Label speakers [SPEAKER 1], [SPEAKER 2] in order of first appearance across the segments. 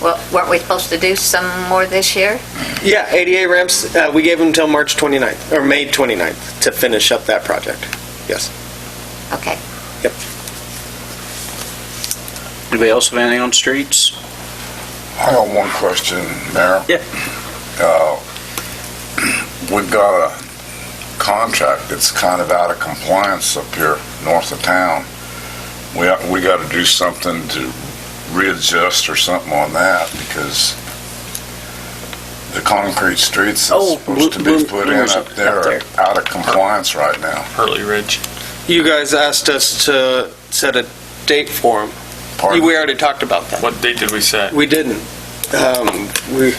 [SPEAKER 1] Well, weren't we supposed to do some more this year?
[SPEAKER 2] Yeah, ADA ramps, uh, we gave them till March 29th, or May 29th, to finish up that project. Yes.
[SPEAKER 1] Okay.
[SPEAKER 2] Yep.
[SPEAKER 3] Anybody else have anything on streets?
[SPEAKER 4] I got one question, Mayor.
[SPEAKER 3] Yeah.
[SPEAKER 4] Uh, We've got a contract that's kind of out of compliance up here north of town. We, we got to do something to readjust or something on that because the concrete streets
[SPEAKER 3] Oh,
[SPEAKER 4] that's supposed to
[SPEAKER 3] Blue-
[SPEAKER 4] be put in
[SPEAKER 3] Blue-
[SPEAKER 4] up there
[SPEAKER 3] up there.
[SPEAKER 4] are out of compliance right now.
[SPEAKER 5] Hurley Ridge.
[SPEAKER 2] You guys asked us to set a date for them.
[SPEAKER 4] Pardon?
[SPEAKER 2] We already talked about that.
[SPEAKER 5] What date did we set?
[SPEAKER 2] We didn't. Um, We,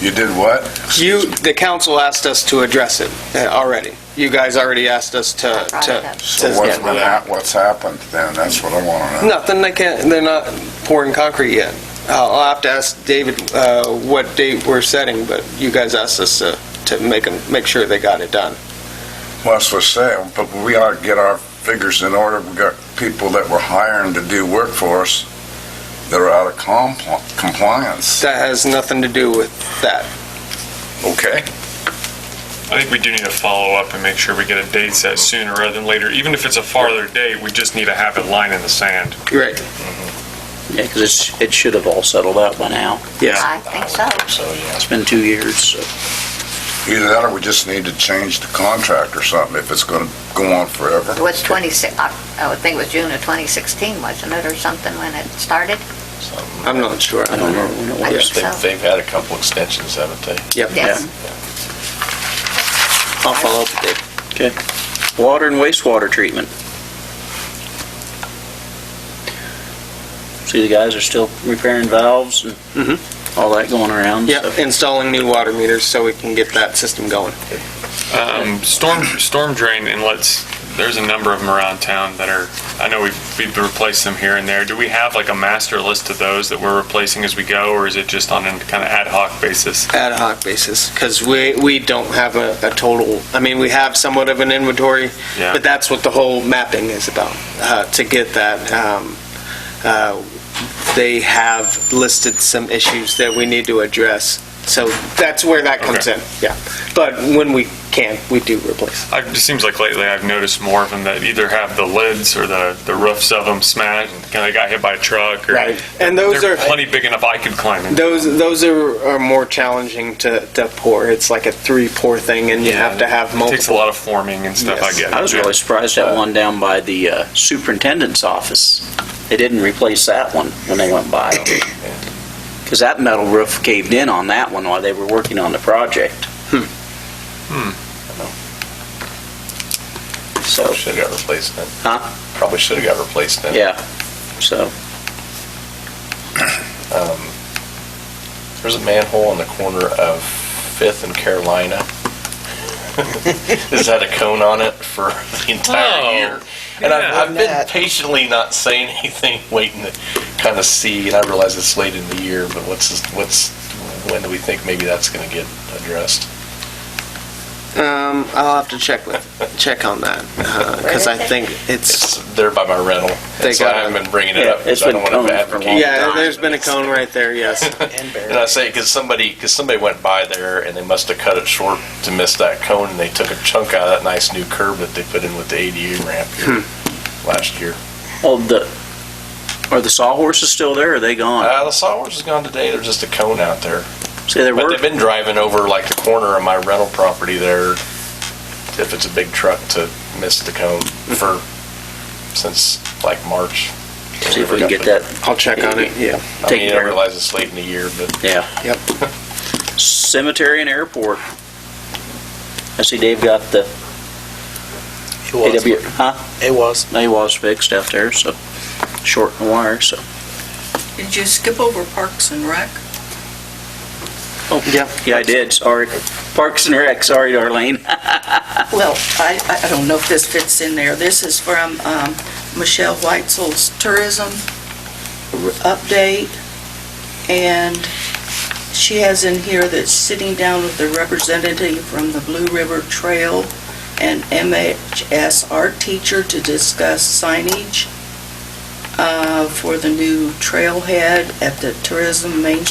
[SPEAKER 4] You did what?
[SPEAKER 2] you, the council asked us to address it uh, already. You guys already asked us to,
[SPEAKER 1] Brought it
[SPEAKER 2] to,
[SPEAKER 1] up.
[SPEAKER 4] So
[SPEAKER 2] to-
[SPEAKER 4] what's been, hap- what's happened then? That's what I want to know.
[SPEAKER 2] nothing, they can't, they're not pouring concrete yet. Uh, I'll have to ask David uh, what date we're setting, but you guys asked us to, to make them, make sure they got it done.
[SPEAKER 4] Well, that's what I'm saying, but we ought to get our figures in order. We got people that we're hiring to do work for us that are out of compl- compliance.
[SPEAKER 2] That has nothing to do with that.
[SPEAKER 4] Okay.
[SPEAKER 5] I think we do need to follow up and make sure we get a date set sooner rather than later. Even if it's a farther date, we just need to have a line in the sand.
[SPEAKER 2] You're right.
[SPEAKER 3] Yeah, because it's, it should have all settled out by now.
[SPEAKER 2] Yeah.
[SPEAKER 1] I think so.
[SPEAKER 3] So, yeah, it's been two years, so.
[SPEAKER 4] Either that or we just need to change the contract or something if it's going to go on forever.
[SPEAKER 1] It was 26, I I would think it was June of 2016, wasn't it, or something, when it started?
[SPEAKER 2] I'm not sure.
[SPEAKER 3] I don't know when it
[SPEAKER 1] I
[SPEAKER 3] was.
[SPEAKER 1] think
[SPEAKER 6] They've,
[SPEAKER 1] so.
[SPEAKER 6] they've had a couple extensions, haven't they?
[SPEAKER 2] Yep.
[SPEAKER 1] Yes.
[SPEAKER 2] I'll follow up with Dave.
[SPEAKER 3] Okay. Water and wastewater treatment. See, the guys are still repairing valves and
[SPEAKER 2] Mhm.
[SPEAKER 3] all that going around. so-
[SPEAKER 2] Yeah, installing new water meters so we can get that system going.
[SPEAKER 5] Um, storm, storm drain inlets, there's a number of them around town that are, I know we've, we've replaced them here and there. Do we have like a master list of those that we're replacing as we go, or is it just on a kind of ad hoc basis?
[SPEAKER 2] Ad hoc basis, because we, we don't have a, a total, I mean, we have somewhat of an inventory,
[SPEAKER 5] Yeah.
[SPEAKER 2] but that's what the whole mapping is about, uh, to get that. Um, uh, They have listed some issues that we need to address, so that's where that comes
[SPEAKER 5] Okay.
[SPEAKER 2] in, yeah. But when we can, we do replace.
[SPEAKER 5] I, it seems like lately I've noticed more of them that either have the lids or the, the roofs of them smashed, kind of got hit by a truck or.
[SPEAKER 2] Right. And those
[SPEAKER 5] They're
[SPEAKER 2] are-
[SPEAKER 5] Plenty big enough I could climb in.
[SPEAKER 2] Those those are, are more challenging to, to pour. It's like a three pour thing, and you
[SPEAKER 5] Yeah,
[SPEAKER 2] have to have
[SPEAKER 5] It Takes a
[SPEAKER 2] multiple.
[SPEAKER 5] lot of forming and stuff, I
[SPEAKER 2] Yes.
[SPEAKER 5] get it.
[SPEAKER 3] I was really surprised at one down by the uh, superintendent's office. They didn't replace that one when they went by. Because that metal roof caved in on that one while they were working on the project.
[SPEAKER 6] Hmm.
[SPEAKER 3] So,
[SPEAKER 6] Should have got replaced then.
[SPEAKER 3] Huh?
[SPEAKER 6] Probably should have got replaced then.
[SPEAKER 3] yeah, so,
[SPEAKER 6] Um, There's a manhole on the corner of Fifth and Carolina. It's had a cone on it for the
[SPEAKER 5] Oh,
[SPEAKER 6] entire year. And
[SPEAKER 5] yeah.
[SPEAKER 6] I've, I've been patiently not saying anything, waiting to kind of see, and I realize it's late in the year, but what's, this- what's, when do we think maybe that's going to get addressed?
[SPEAKER 2] Um, I'll have to check with check on that because I think it's
[SPEAKER 6] It's there by my rental.
[SPEAKER 2] They
[SPEAKER 6] That's why
[SPEAKER 2] got
[SPEAKER 6] I haven't been bringing it
[SPEAKER 3] Yeah,
[SPEAKER 6] up,
[SPEAKER 3] it's
[SPEAKER 6] because I don't
[SPEAKER 3] been
[SPEAKER 6] want to
[SPEAKER 3] cone for a long
[SPEAKER 6] advocate.
[SPEAKER 2] yeah. There's been a cone right there. Yes.
[SPEAKER 6] And I say, because somebody, because somebody went by there and they must have cut it short to miss that cone, and they took a chunk out of that nice new curb that they put in with the ADU ramp here
[SPEAKER 3] Hmm.
[SPEAKER 6] last year.
[SPEAKER 3] oh, the, are the sawhorses still there, or are they gone?
[SPEAKER 6] Uh, the sawhorse is gone today, there's just a cone out there.
[SPEAKER 3] See, they
[SPEAKER 6] But
[SPEAKER 3] were,
[SPEAKER 6] they've been driving over like the corner of my rental property there, if it's a big truck, to miss the cone
[SPEAKER 3] Hmm.
[SPEAKER 6] for, since like March.
[SPEAKER 3] see if we can get that,
[SPEAKER 2] I'll check on it. Yeah.
[SPEAKER 6] I
[SPEAKER 3] taken
[SPEAKER 6] mean,
[SPEAKER 3] care
[SPEAKER 6] I
[SPEAKER 3] of.
[SPEAKER 6] realize it's late in the year, but
[SPEAKER 3] yeah.
[SPEAKER 2] Yep.
[SPEAKER 3] Cemetery and airport. I see Dave got the
[SPEAKER 7] It was.
[SPEAKER 3] AW, huh?
[SPEAKER 7] It was.
[SPEAKER 3] They was fixed out there, so short and wire, so.
[SPEAKER 8] Did you skip over Parks and Rec?
[SPEAKER 3] Oh, yeah. Yeah, I did, sorry. Parks and Rec, sorry, Darlene.
[SPEAKER 8] Well, I, I- I don't know if this fits in there. This is from um, Michelle Weitzel's tourism update, and she has in here that sitting down with the representative from the Blue River Trail and MHS art teacher to discuss signage. uh, for the new trailhead at the Tourism Main